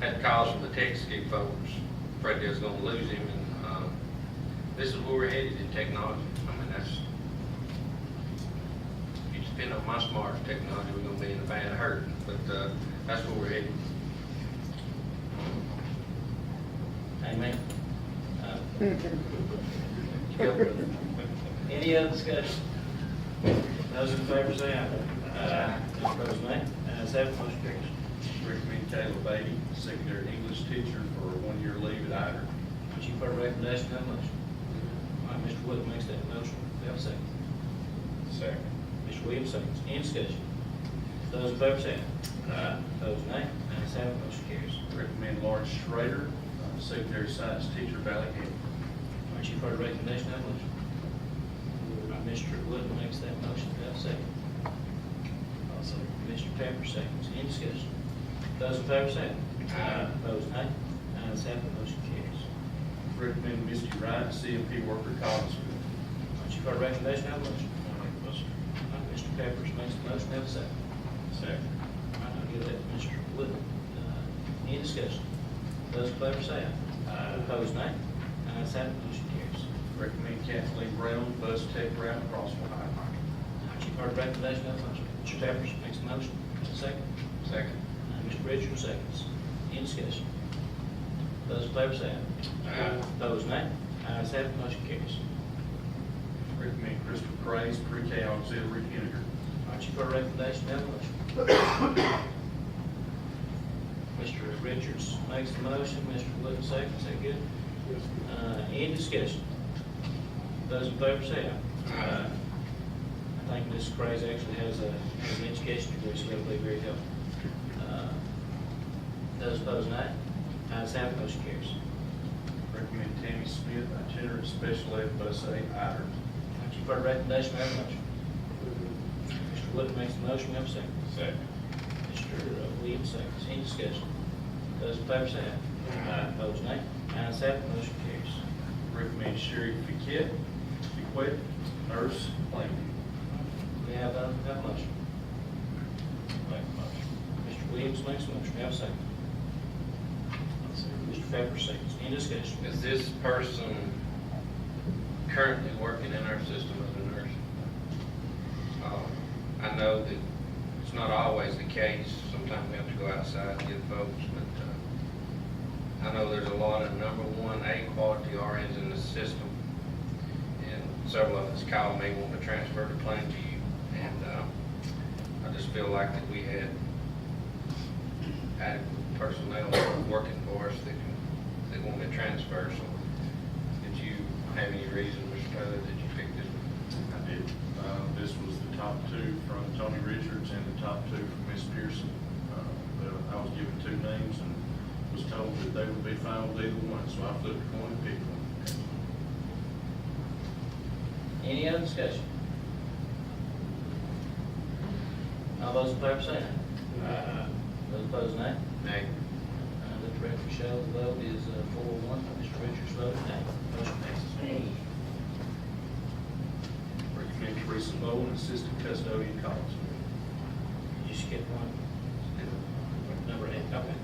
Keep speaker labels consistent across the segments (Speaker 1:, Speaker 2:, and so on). Speaker 1: had calls from the tech ski folks, afraid they was gonna lose him, and, um, this is where we're headed in technology. I mean, that's, if you depend on my smart technology, we're gonna be in a bad hurt, but, uh, that's where we're headed.
Speaker 2: Amen. Uh,
Speaker 1: Yep.
Speaker 2: Any other discussion? Those in favor say aye. Aye. Those opposed, nay. Ayes have, it, motion carries.
Speaker 3: Recommend Caleb Beatty, secondary English teacher for a one-year leave at Ider.
Speaker 2: Would you put a recommendation on motion? All right, Mr. Wood makes that motion. Do I have a second?
Speaker 3: Second.
Speaker 2: Mr. Williams seconds. Any discussion? Those in favor say aye. Aye. Those nay. Ayes have, it, motion carries.
Speaker 3: Recommend Lawrence Schrader, uh, secondary science teacher, Valley Head.
Speaker 2: All right, you've heard the recommendation on motion. All right, Mr. Wood makes that motion. Do I have a second? I'll second. Mr. Pepper seconds. Any discussion? Those in favor say aye. Aye. Those nay. Ayes have, it, motion carries.
Speaker 3: Recommend Misty Ryan, CMP worker, Collinsville.
Speaker 2: Once you've heard the recommendation, have a motion. All right, Mr. Pepperidge makes the motion, have a second.
Speaker 3: Second.
Speaker 2: All right, I'll give that to Mr. Wood. Uh, Any discussion? Those in favor say aye. Aye. Opposed, nay. Ayes have, it, motion carries.
Speaker 3: Recommend Kathleen Brown, bus tech route, Crossville High.
Speaker 2: All right, you've heard the recommendation, have a motion. Mr. Pepperidge makes the motion, have a second.
Speaker 3: Second.
Speaker 2: All right, Mr. Richards seconds. Any discussion? Those in favor say aye.
Speaker 3: Aye.
Speaker 2: Opposed, nay. Ayes have, it, motion carries.
Speaker 3: Recommend Crystal Graves, pre-K auxiliary kindergarten.
Speaker 2: All right, you've heard the recommendation, have a motion. Mr. Richards makes the motion, Mr. Wood seconds, is that good? Uh, Any discussion? Those in favor say aye. Aye. I think Ms. Craze actually has a, has an education degree, so that'll be very helpful. Uh, Those opposed, nay. Ayes have, it, motion carries.
Speaker 3: Recommend Tammy Smith, itinerant special ed bus aide, Ider.
Speaker 2: You've heard the recommendation, have a motion. Mr. Wood makes the motion, have a second.
Speaker 3: Second.
Speaker 2: Mr. uh, Williams seconds, any discussion? Those in favor say aye. Aye. Opposed, nay. Ayes have, it, motion carries.
Speaker 3: Recommend Sherry Fiquette, Fiquette, nurse, Plainview.
Speaker 2: We have a, have a motion.
Speaker 3: Make a motion.
Speaker 2: Mr. Williams makes a motion, have a second. Mr. Pepper seconds, any discussion?
Speaker 1: Is this person currently working in our system as a nurse? Um, I know that it's not always the case, sometimes we have to go outside and get folks, but, uh, I know there's a lot of number one A quality RNs in the system, and several of us called me wanting to transfer to Plainview, and, uh, I just feel like that we had adequate personnel working for us that can, that want to transfer, so did you have any reason, Mr. Taylor, that you picked this one?
Speaker 3: I did. Uh, This was the top two from Tony Richards and the top two from Miss Pearson. Uh, but I was given two names and was told that they would be fine with either one, so I flipped a coin and picked one.
Speaker 2: Any other discussion? All those in favor say aye. Aye. Those opposed, nay.
Speaker 1: Nay.
Speaker 2: Uh, Let the record show the vote is uh, four one, Mr. Richards voted nay. Motion passes.
Speaker 3: Recommend Teresa Bowen, assistant custodian, Collinsville.
Speaker 2: You skip one. uh, Number eight, okay.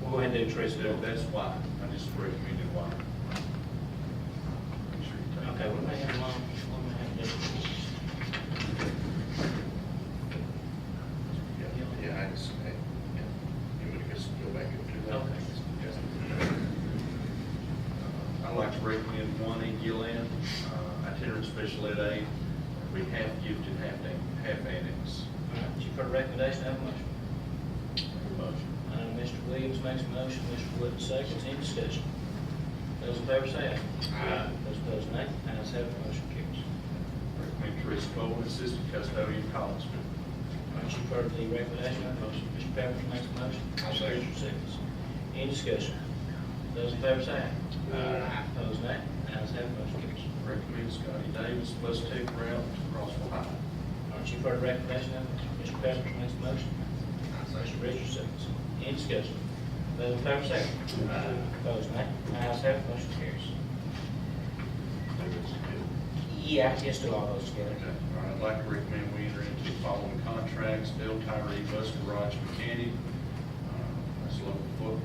Speaker 2: We'll go ahead and do Teresa.
Speaker 3: So that's why, I just recommended why. Make sure you take
Speaker 2: Okay,
Speaker 3: that.
Speaker 2: we may have long, we may have different.
Speaker 4: Yeah, I just, I, yeah, you would just go back and do that.
Speaker 2: Okay.
Speaker 3: I'd like to recommend one in Gilland, uh, itinerant special ed aid, we half gifted, half, an- half annex.
Speaker 2: All right, Chief heard the recommendation, have a motion.
Speaker 3: Motion.
Speaker 2: Uh, Mr. Williams makes a motion, Mr. Wood seconds, any discussion? Those in favor say aye.
Speaker 1: Aye.
Speaker 2: Those opposed, nay. Ayes have, it, motion carries.
Speaker 3: Recommend Teresa Bowen, assistant custodian, Collinsville.
Speaker 2: All right, Chief heard the recommendation, have a motion. Mr. Pepperidge makes a motion.
Speaker 1: I'll
Speaker 2: Mr.
Speaker 1: second.
Speaker 2: Richards seconds. Any discussion? Those in favor say aye. Aye. Opposed, nay. Ayes have, it, motion carries.
Speaker 3: Recommend Scotty Davis, bus tech route to Crossville High.
Speaker 2: All right, Chief heard the recommendation, have a motion. Mr. Pepperidge makes a motion. Mr. Richards seconds. Any discussion? Those in favor say aye. Aye. Opposed, nay. Ayes have, it, motion carries. Yeah, I can just do all those together.
Speaker 3: Okay. All right, I'd like to recommend we enter into the following contracts, Bill Tyree Bus Garage Mechanic, uh, that's local foot